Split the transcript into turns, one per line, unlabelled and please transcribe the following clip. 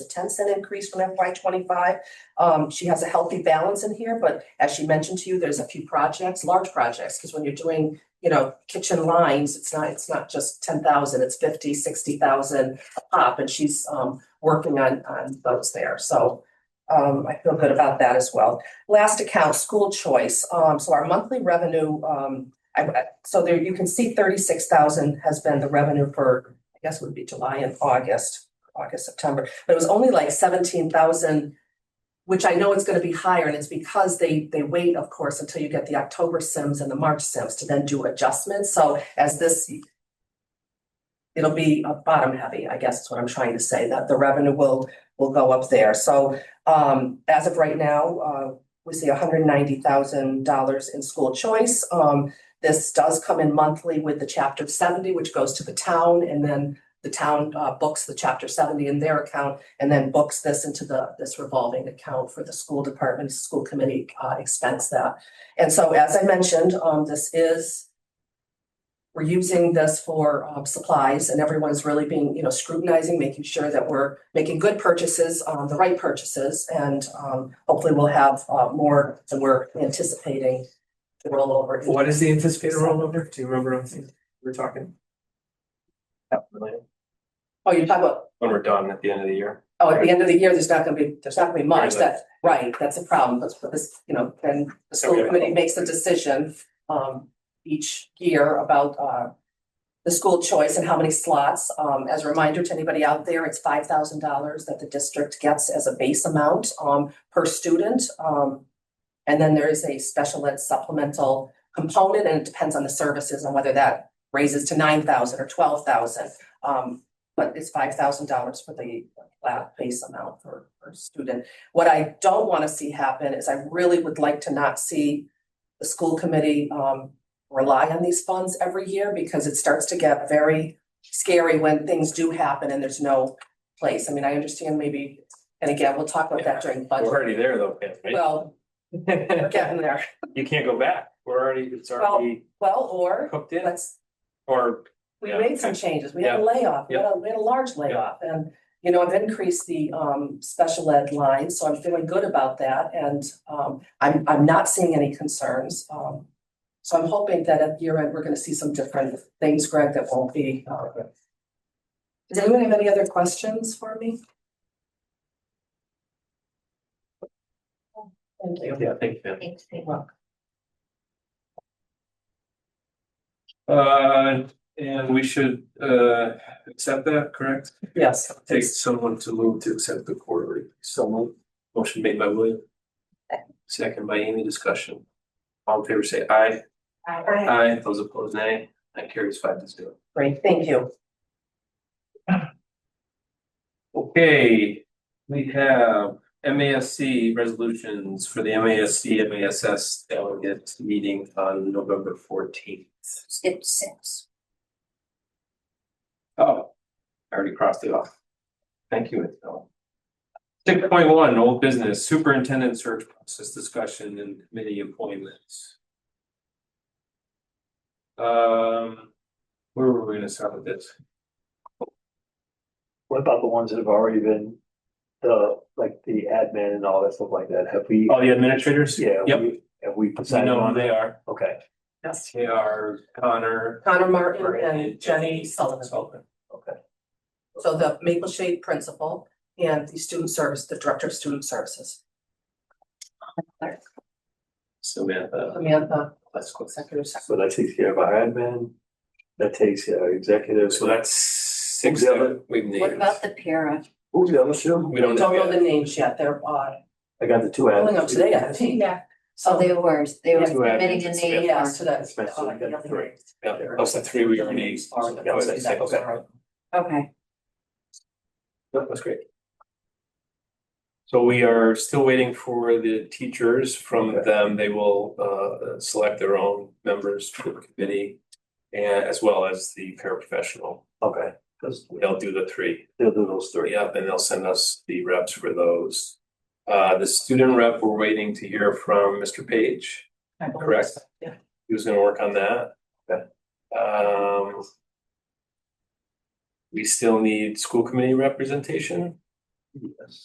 a ten cent increase from FY twenty-five. Um, she has a healthy balance in here, but as she mentioned to you, there's a few projects, large projects, because when you're doing, you know, kitchen lines, it's not, it's not just ten thousand, it's fifty, sixty thousand up, and she's, um, working on, on those there, so um, I feel good about that as well. Last account, school choice, um, so our monthly revenue, um, I, I- so there, you can see thirty-six thousand has been the revenue for, I guess would be July and August, August, September, but it was only like seventeen thousand, which I know it's gonna be higher, and it's because they, they wait, of course, until you get the October sims and the March sims to then do adjustments, so as this it'll be uh, bottom heavy, I guess is what I'm trying to say, that the revenue will, will go up there, so um, as of right now, uh, we see hundred ninety thousand dollars in school choice, um, this does come in monthly with the chapter seventy, which goes to the town and then the town uh books the chapter seventy in their account and then books this into the this revolving account for the school department, school committee uh expense that. And so as I mentioned, um this is we're using this for um supplies and everyone's really being, you know, scrutinizing, making sure that we're making good purchases, um the right purchases and um hopefully we'll have uh more than we're anticipating to roll over. into
What is the anticipated rollover? Do you remember anything we're talking?
Oh, you're talking about,
When we're done at the end of the year.
oh, at the end of the year, there's not gonna be, there's not gonna be much,
Right.
that, right, that's a problem, but but this, you know, then the school
Okay.
committee makes a decision. Um, each year about uh. The school choice and how many slots, um, as a reminder to anybody out there, it's five thousand dollars that the district gets as a base amount, um, per student, um. And then there is a special ed supplemental component, and it depends on the services and whether that raises to nine thousand or twelve thousand. Um, but it's five thousand dollars for the flat base amount for, for student. What I don't want to see happen is I really would like to not see the school committee, um, rely on these funds every year because it starts to get very scary when things do happen and there's no place. I mean, I understand maybe, and again, we'll talk about that during
We're
budget.
already there though, Pam, right?
Well, we're getting there.
You can't go back. We're already, it's already
Well, or
cooked in
let's,
or
we
Yeah,
made some
okay.
changes. We had a layoff, we had a, we had a large layoff and, you know, I've increased the um special ed line, so I'm feeling good about that and um I'm, I'm not seeing any concerns. Um, so I'm hoping that at year end, we're gonna see some different things, Greg, that won't be. uh, Does anyone have any other questions for me? Thank you.
Yeah, thank you. Pam.
Thanks, Pam.
You're welcome.
Uh, and we should uh accept that, correct?
Yes.
Take someone to move to accept the quarterly. Someone, motion made by William. Second by Amy, discussion. All in favor, say aye.
Aye.
Aye. Those opposed, nay. That carries five to zero.
Great, thank you.
Okay, we have MASC resolutions for the MASC, MASs delegate meeting on November fourteenth.
Skip six.
Oh, I already crossed it off. Thank you, Isabel. Six point one, old business superintendent search process discussion and committee appointments. Um, where were we gonna start with this?
What about the ones that have already been, the, like the admin and all that stuff like that, have we?
Oh, the administrators?
Yeah.
Yep,
we- Have we
I
decided
know who
on
they
that?
are.
Okay,
Yes.
They are Connor,
Connor Martin and uh, Jenny Sullivan.
okay.
So the Maple Shade principal and the student service, the director of student services,
Samantha,
Samantha,
that's cool.
executive secretary.
So that takes care of our admin, that takes care of executive,
So
so that,
that's six
Who's the other-
that we've named.
What about the para? Oh,
who's the other two?
We don't
Don't know
know
the
yet.
names yet, they're uh
I got the two
pulling up
admins.
today, I think. Yeah.
Oh,
So
they
they,
were, they were
Yeah.
submitting E a name.
yeah, so that's. uh,
That's right, so we got three.
Yeah, those are three we already named.
Are the-
Yeah, okay,
that was
okay.
right.
Okay,
No, That's great. So we are still waiting for the teachers from
Okay.
them. They will uh select their own members for the committee. And as well as the paraprofessional.
Okay, because
They'll do the three.
they'll do those three.
Yep, and they'll send us the reps for those. Uh, the student rep, we're waiting to hear from Mr. Page.
I believe
Correct.
so, Yeah.
He was gonna work on that.
Okay.
Um. We still need school committee representation.
Yes.